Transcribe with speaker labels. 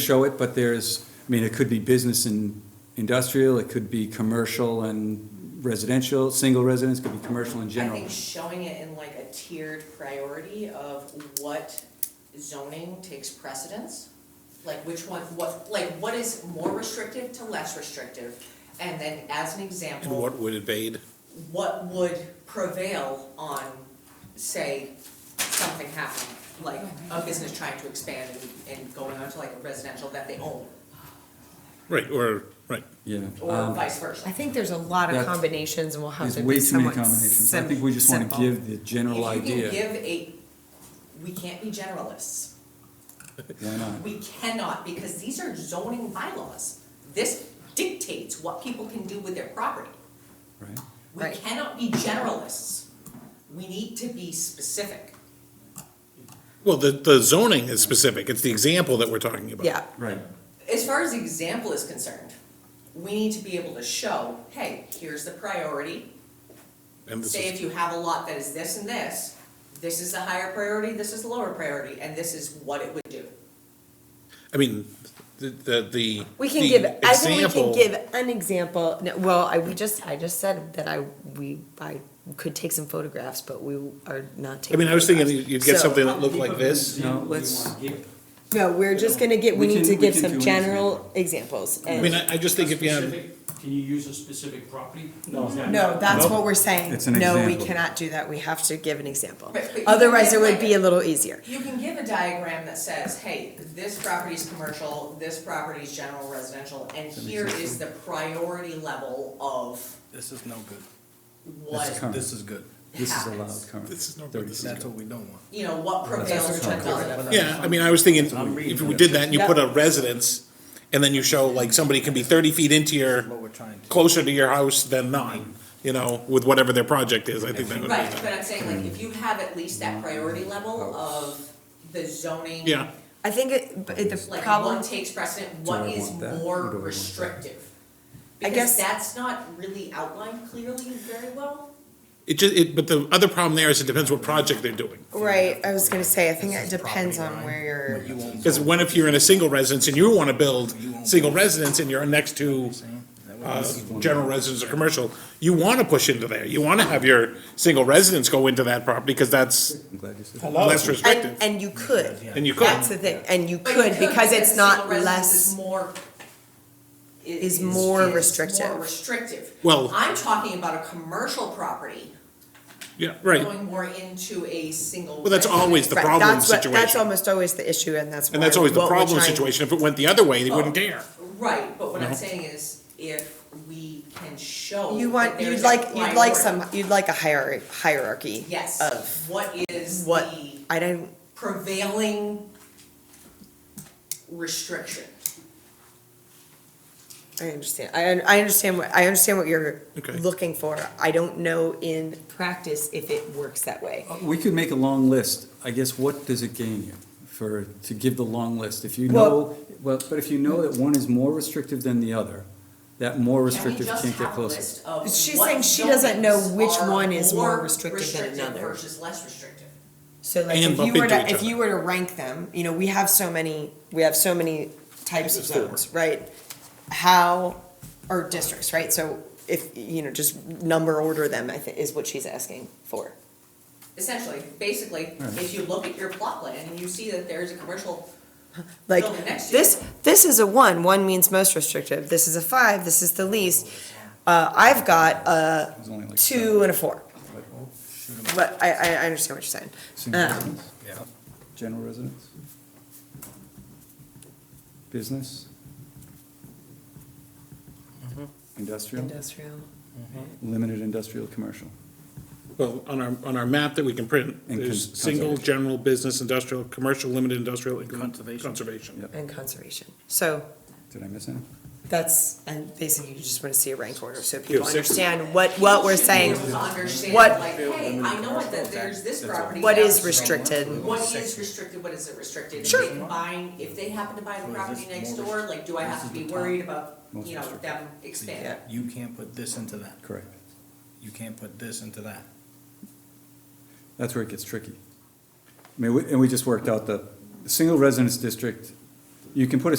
Speaker 1: show it, but there's, I mean, it could be business and industrial, it could be commercial and residential, single residence, could be commercial in
Speaker 2: I
Speaker 1: general.
Speaker 2: think showing it in like a tiered priority of what zoning takes precedence, like which one, what, like what is more restrictive to less restrictive? And then as an
Speaker 3: And
Speaker 2: example,
Speaker 3: what would evade?
Speaker 2: what would prevail on, say, something happening? Like a business trying to expand and, and going on to like a residential that they own,
Speaker 3: Right, or, right.
Speaker 1: Yeah.
Speaker 2: or
Speaker 1: um,
Speaker 2: vice versa.
Speaker 4: I think there's a lot
Speaker 1: That
Speaker 4: of combinations and we'll have
Speaker 1: There's
Speaker 4: to
Speaker 1: way
Speaker 4: be
Speaker 1: too many
Speaker 4: somewhat
Speaker 1: combinations. I
Speaker 4: sim-
Speaker 1: think we just wanna
Speaker 4: simple.
Speaker 1: give the general
Speaker 2: If you can
Speaker 1: idea.
Speaker 2: give a, we can't be generalists.
Speaker 1: Why not?
Speaker 2: We cannot, because these are zoning bylaws. This dictates what people can do with their property.
Speaker 1: Right?
Speaker 2: We
Speaker 4: Right.
Speaker 2: cannot be generalists. We need to be specific.
Speaker 3: Well, the, the zoning is specific, it's the example that we're talking about.
Speaker 4: Yeah,
Speaker 1: Right.
Speaker 2: As far as the example is concerned, we need to be able to show, hey, here's the priority.
Speaker 3: And this
Speaker 2: Say if
Speaker 3: is,
Speaker 2: you have a lot that is this and this, this is the higher priority, this is the lower priority, and this is what it would do.
Speaker 3: I mean, the, the, the.
Speaker 4: we can
Speaker 3: the
Speaker 4: give, I think we
Speaker 3: example-
Speaker 4: can give an example, No, well, I, we just, I just said that I, we, I could take some photographs, but we are not
Speaker 3: I
Speaker 4: taking.
Speaker 3: mean, I was thinking
Speaker 4: photographs.
Speaker 3: you'd get
Speaker 4: So-
Speaker 3: something that looked like this.
Speaker 1: No, let's,
Speaker 4: No, we're just gonna get, we
Speaker 1: We
Speaker 4: need
Speaker 1: can- we
Speaker 4: to give
Speaker 1: can do
Speaker 4: some
Speaker 1: an
Speaker 4: general examples
Speaker 3: I mean,
Speaker 4: and,
Speaker 3: I, I just think if you have,
Speaker 5: Specific- Can you use a specific property? No.
Speaker 4: no, that's what we're saying.
Speaker 1: It's an
Speaker 4: No, we
Speaker 1: example.
Speaker 4: cannot do that, we have to give an example.
Speaker 2: But- but you can
Speaker 4: Otherwise,
Speaker 2: give
Speaker 4: it would
Speaker 2: like
Speaker 4: be
Speaker 2: a-
Speaker 4: a little easier.
Speaker 2: You can give a diagram that says, hey, this property is commercial, this property is general residential, and here is the priority level of
Speaker 6: This is no good.
Speaker 2: what,
Speaker 1: That's current.
Speaker 6: This is good.
Speaker 1: this is allowed
Speaker 2: Happens.
Speaker 1: currently.
Speaker 3: This is not-
Speaker 1: 30
Speaker 6: That's
Speaker 1: seconds.
Speaker 6: what we don't want.
Speaker 2: you know, what prevails
Speaker 1: That's current.
Speaker 2: to another.
Speaker 3: yeah, I mean, I was thinking,
Speaker 6: I'm reading
Speaker 3: if we
Speaker 6: it.
Speaker 3: did that and you
Speaker 4: Yeah.
Speaker 3: put a residence, and then you show like somebody can be thirty feet into
Speaker 6: What we're
Speaker 3: your,
Speaker 6: trying to.
Speaker 3: closer to your house than not, you know, with whatever their project is, I think that would be.
Speaker 2: Right, but I'm saying, like, if you have at least that priority level
Speaker 1: Oh.
Speaker 2: of the zoning.
Speaker 3: Yeah,
Speaker 4: I think it, but it- the
Speaker 2: Like,
Speaker 4: problem
Speaker 2: what takes precedent,
Speaker 1: Do I
Speaker 2: what is
Speaker 1: want that, or do I
Speaker 2: more
Speaker 1: want that?
Speaker 2: restrictive?
Speaker 4: I guess-
Speaker 2: Because that's not really outlined clearly very well.
Speaker 3: it just, it, but the other problem there is it depends what project they're doing.
Speaker 4: Right, I was gonna say, I think it
Speaker 6: This is
Speaker 4: depends on
Speaker 6: property line.
Speaker 3: Oh
Speaker 4: where
Speaker 6: You
Speaker 4: you're,
Speaker 6: won't
Speaker 3: Because
Speaker 6: go-
Speaker 3: when if you're in a single residence and you wanna build
Speaker 6: You won't
Speaker 3: single
Speaker 6: go.
Speaker 3: residence and you're next to,
Speaker 6: Saying? That would be-
Speaker 3: uh, general residence or commercial, you wanna push into there, you wanna have your single residence go into that property, because that's
Speaker 1: I'm glad you said that.
Speaker 3: less
Speaker 4: and,
Speaker 3: restrictive.
Speaker 4: and you could.
Speaker 3: And you
Speaker 4: That's
Speaker 3: could,
Speaker 4: the thing, and you
Speaker 2: But
Speaker 4: could, because it's not
Speaker 2: single residence is
Speaker 4: less,
Speaker 2: More. i-
Speaker 4: is more
Speaker 2: More
Speaker 4: restrictive.
Speaker 2: restrictive.
Speaker 3: Well-
Speaker 2: I'm talking about a commercial property
Speaker 3: yeah, right,
Speaker 2: going more into a single.
Speaker 3: well, that's
Speaker 2: residence.
Speaker 3: always the
Speaker 4: right,
Speaker 3: problem
Speaker 4: that's what, that's
Speaker 3: situation.
Speaker 4: almost always the issue, and that's why.
Speaker 3: And that's always the
Speaker 4: what we're
Speaker 3: problem
Speaker 4: trying-
Speaker 3: situation, if it went the other way, they wouldn't care.
Speaker 2: Right, but what I'm saying is, if we can show.
Speaker 4: You
Speaker 2: that
Speaker 4: want,
Speaker 2: there
Speaker 4: you'd
Speaker 2: is a
Speaker 4: like, you'd like
Speaker 2: priority-
Speaker 4: some, you'd like a hierarchy, hierarchy. Of
Speaker 2: Yes, what is
Speaker 4: what,
Speaker 2: the
Speaker 4: I don't,
Speaker 2: prevailing restriction?
Speaker 4: I understand, I, un- I understand what, I understand what you're
Speaker 3: Okay.
Speaker 4: looking for, I don't know in practice if it works that way.
Speaker 1: Uh, We could make a long list. I guess what does it gain you for, to give the long list? If you
Speaker 4: Well-
Speaker 1: know, well, but if you know that one is more restrictive than the other, that more restrictive can't get closer.
Speaker 2: closer.
Speaker 4: She's saying she doesn't know which one is more restrictive than another.
Speaker 2: Versus less restrictive.
Speaker 4: So like
Speaker 3: And
Speaker 4: if
Speaker 3: bump
Speaker 4: you were
Speaker 3: into
Speaker 4: to
Speaker 3: each
Speaker 4: if
Speaker 3: other.
Speaker 4: you were to rank them, you know, we have so many we have so many types of zones, right? How or districts, right? So if you know, just number order them, I think is what she's asking for.
Speaker 2: Essentially, basically, if you look at your plot plan and you see that there's a commercial,
Speaker 4: Like
Speaker 2: Building next to
Speaker 4: this
Speaker 2: you.
Speaker 4: this is a one. One means most restrictive. This is a five. This is the least. Uh, I've got a
Speaker 1: There's only like
Speaker 4: two and a four.
Speaker 6: Shoot 'em.
Speaker 4: But I, I I understand what you're saying.
Speaker 1: Single
Speaker 4: Um,
Speaker 1: residence?
Speaker 6: Yeah.
Speaker 1: General residence? Business? Industrial?
Speaker 4: Industrial.
Speaker 1: Limited industrial, commercial.
Speaker 3: Well, on our, on our map that we can print,
Speaker 1: And con-
Speaker 3: there's single,
Speaker 1: conservation.
Speaker 3: general, business, industrial, commercial, limited industrial, and
Speaker 6: Conservation.
Speaker 3: Conservation.
Speaker 1: Yeah.
Speaker 4: And conservation. So
Speaker 1: Did I miss any?
Speaker 4: That's, and basically you just wanna see a rank order, so
Speaker 3: Yeah,
Speaker 4: people
Speaker 3: six.
Speaker 4: understand what, what
Speaker 2: should be
Speaker 4: we're
Speaker 2: able
Speaker 4: saying,
Speaker 2: to understand,
Speaker 4: what-
Speaker 2: like, hey, I know it that there's this property.
Speaker 4: what
Speaker 2: that
Speaker 4: is restricted.
Speaker 2: What is restricted, what isn't restricted, if
Speaker 4: Sure.
Speaker 2: they can buy, if they happen to buy the
Speaker 6: Or is
Speaker 2: property
Speaker 6: this
Speaker 2: next
Speaker 6: more
Speaker 2: door, like, do I have to
Speaker 6: restricted?
Speaker 2: be
Speaker 6: This is the
Speaker 2: worried about,
Speaker 1: Most
Speaker 2: you know,
Speaker 1: restricted.
Speaker 2: them expanding?
Speaker 6: You can't put this into that.
Speaker 1: Correct.
Speaker 6: You can't put this into that.
Speaker 1: That's where it gets tricky. I mean, we- and we just worked out the, the single residence district, you can put a